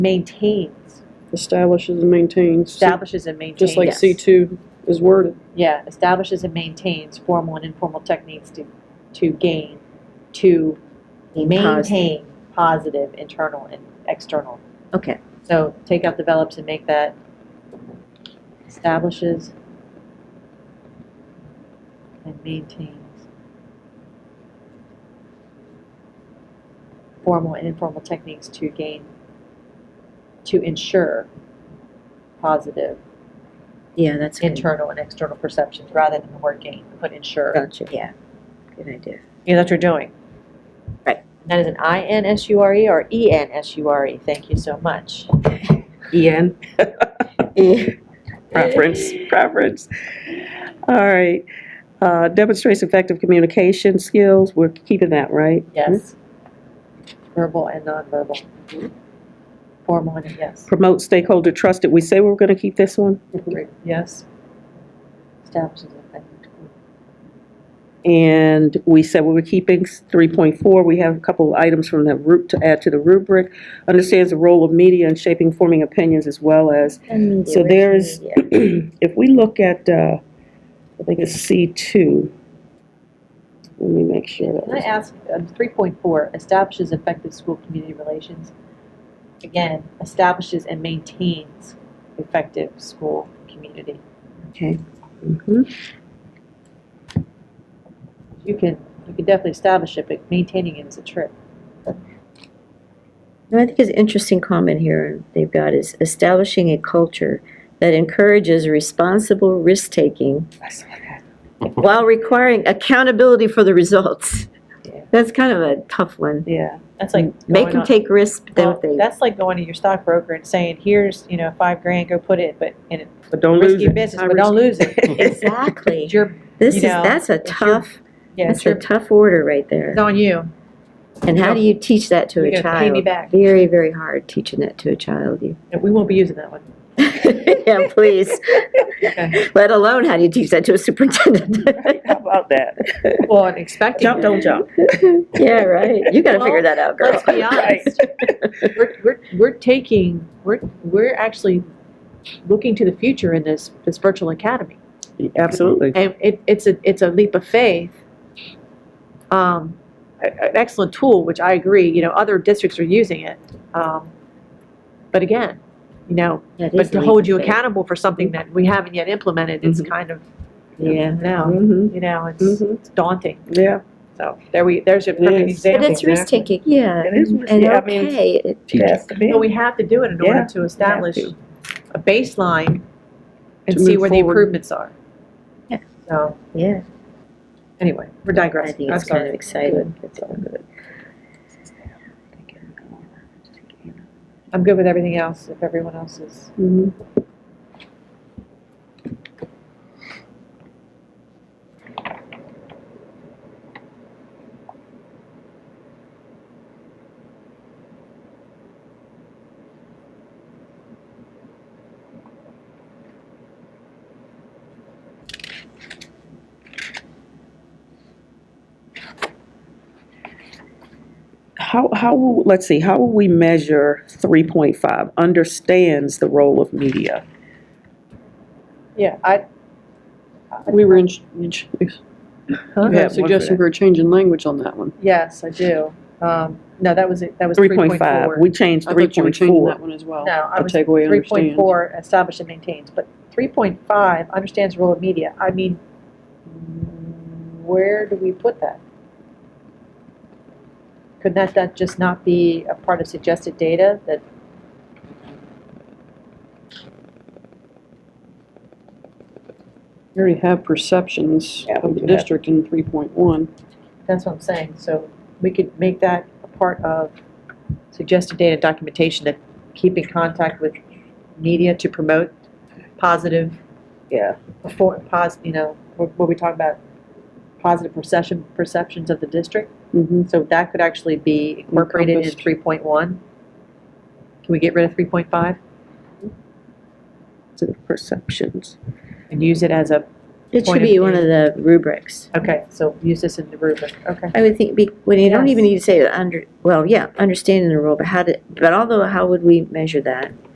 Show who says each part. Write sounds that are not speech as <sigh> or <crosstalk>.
Speaker 1: maintains,
Speaker 2: Establishes and maintains.
Speaker 1: establishes and maintains.
Speaker 2: Just like
Speaker 1: Yes.
Speaker 2: C two is worded.
Speaker 1: Yeah, establishes and maintains formal and informal techniques to, to gain, to maintain positive internal and external.
Speaker 3: Okay,
Speaker 1: So take out develops and make that establishes and maintains formal and informal techniques to gain, to ensure positive
Speaker 3: yeah, that's good.
Speaker 1: internal and external perceptions rather than the word gain, put ensure.
Speaker 3: Gotcha, yeah. Good idea.
Speaker 1: Yeah, that's what you're doing.
Speaker 3: Right.
Speaker 1: And That is an I-N-S-U-R-E E or E-N-S-U-R-E, E. thank you so much.
Speaker 3: <laughs>
Speaker 2: Ian.
Speaker 3: Eh,
Speaker 2: Preference, <laughs> preference. All right. Uh, demonstrates effective communication skills. We're keeping that, right?
Speaker 1: Yes. Verbal and nonverbal. Formal and yes.
Speaker 2: Hmm? Promote stakeholder trust. Did we say we were gonna keep this one?
Speaker 1: Yes. Establishes effective.
Speaker 2: And we said we were keeping three point four. We have a couple of items from the root to add to the rubric. Understands the role of media in shaping, forming opinions as well as So there is- <clears throat> if we look at, uh, I think it's C2, let me make sure that
Speaker 1: Can I
Speaker 2: was,
Speaker 1: ask, um, 3.4, establishes effective school community relations. Again, establishes and maintains effective school community.
Speaker 2: okay. Mhm.
Speaker 1: You can, you can definitely establish it, but maintaining it is a trick.
Speaker 3: No, I think it's an interesting comment here they've got is establishing a culture that encourages responsible risk-taking
Speaker 2: I saw that.
Speaker 3: while requiring accountability for the results.
Speaker 1: Yeah.
Speaker 3: That's kind of a tough one.
Speaker 2: Yeah,
Speaker 1: That's like.
Speaker 3: Mm-hmm. Make
Speaker 1: going
Speaker 3: them
Speaker 1: on-
Speaker 3: take risks, but then
Speaker 1: Well,
Speaker 3: if they, <laughs>
Speaker 1: That's like going to your stockbroker and saying, here's, you know, five grand, go put it, but in a
Speaker 2: but don't lose
Speaker 1: risky
Speaker 2: it.
Speaker 1: business,
Speaker 2: High
Speaker 1: but don't lose it.
Speaker 2: risk.
Speaker 3: exactly.
Speaker 1: It's your,
Speaker 3: This
Speaker 1: you
Speaker 3: is,
Speaker 1: know,
Speaker 3: that's a
Speaker 1: it's your-
Speaker 3: tough,
Speaker 1: yeah, it's
Speaker 3: that's a
Speaker 1: your,
Speaker 3: tough order right there.
Speaker 1: it's on you.
Speaker 3: And how do you teach that to a
Speaker 1: You're gonna
Speaker 3: child?
Speaker 1: pay me back.
Speaker 3: Very, very hard teaching that to a child. You- <laughs>
Speaker 1: And We won't be using that one.
Speaker 3: yeah, please.
Speaker 1: <laughs> Okay.
Speaker 3: Let alone how do you teach that to
Speaker 1: <laughs>
Speaker 3: a superintendent?
Speaker 2: <laughs> How about that?
Speaker 1: Well, and expecting.
Speaker 2: Jump, don't jump.
Speaker 3: <laughs> yeah, right. You got to
Speaker 1: Well,
Speaker 3: figure that out, girl.
Speaker 1: Let's be honest. <laughs> We're, we're, we're taking, we're, we're actually looking to the future in this, this virtual academy.
Speaker 2: Absolutely.
Speaker 1: And it, it's a, it's a leap of faith. Um, a- an excellent tool, which I agree, you know, other districts are using it. Um, but again, you know,
Speaker 3: <laughs> That is
Speaker 1: but
Speaker 3: a
Speaker 1: to
Speaker 3: leap
Speaker 1: hold
Speaker 3: of
Speaker 1: you
Speaker 3: faith. Mm-hmm.
Speaker 1: accountable for something that we haven't yet implemented, it's
Speaker 2: Mhm.
Speaker 1: kind of,
Speaker 3: Yeah. Mm-hmm.
Speaker 1: now,
Speaker 2: Mm-hmm,
Speaker 1: you know, it's
Speaker 2: Mhm.
Speaker 1: it's daunting.
Speaker 2: yeah.
Speaker 1: So there we, there's a
Speaker 2: It
Speaker 1: perfect
Speaker 2: is.
Speaker 1: example.
Speaker 3: But it's risk taking, yeah.
Speaker 2: It is
Speaker 3: and-
Speaker 2: risk-
Speaker 3: And
Speaker 2: yeah, I mean,
Speaker 3: okay. it-
Speaker 2: It has to be.
Speaker 1: But we have to do it in
Speaker 2: Yeah,
Speaker 1: order to establish
Speaker 2: to.
Speaker 1: a baseline and
Speaker 2: To
Speaker 1: see
Speaker 2: move
Speaker 1: where the
Speaker 2: forward.
Speaker 1: improvements are.
Speaker 3: Yeah.
Speaker 1: So,
Speaker 3: Yeah,
Speaker 1: anyway, we're
Speaker 3: I
Speaker 1: digressing.
Speaker 3: think
Speaker 1: I'm
Speaker 3: it's kind of
Speaker 1: sorry.
Speaker 3: exciting.
Speaker 1: I'm good with everything else, if everyone else is.
Speaker 3: Mm-hmm.
Speaker 2: Mhm. How, how, will- let's see, how will we measure 3.5, understands the role of media?
Speaker 1: Yeah, I,
Speaker 4: We were in, in- <laughs> you
Speaker 2: Yeah, one
Speaker 4: had
Speaker 2: for
Speaker 4: suggested
Speaker 2: that.
Speaker 4: we were changing language on that one.
Speaker 1: yes, I do. Um, No, that was, it. that was
Speaker 2: 3.5,
Speaker 1: 3.4.
Speaker 2: we changed
Speaker 4: I thought you were changing
Speaker 2: 3.4.
Speaker 4: that one as well.
Speaker 1: No, I
Speaker 4: A
Speaker 1: was
Speaker 4: takeaway
Speaker 1: Three
Speaker 4: understands.
Speaker 1: point four, establish and maintains, but three point five, understands the role of media, I mean, mm, where do we put that? Could that, that just not be a part of suggested data that?
Speaker 4: We already have perceptions
Speaker 2: Yeah, we
Speaker 4: of
Speaker 2: do
Speaker 4: the
Speaker 2: have-
Speaker 4: district in 3.1.
Speaker 1: That's what I'm saying, so we could make that a part of suggested data documentation that keep in contact with media to promote positive,
Speaker 2: Yeah.
Speaker 1: before, pos, you know, what, what we talk about, positive perception, perceptions of the district.
Speaker 4: Mhm.
Speaker 1: So that could actually be incorporated in
Speaker 4: Encompassed.
Speaker 1: three point one? Can we get rid of three point five
Speaker 2: to the perceptions.
Speaker 1: and use it as a Point
Speaker 3: It should
Speaker 1: of
Speaker 3: be one
Speaker 1: view.
Speaker 3: of the rubrics.
Speaker 1: Okay, so use this in the rubric, okay.
Speaker 3: I would think, be- when you don't
Speaker 1: Yes.
Speaker 3: even need to say, under, well, yeah, understanding the rule, but how did, but although, how would we measure that?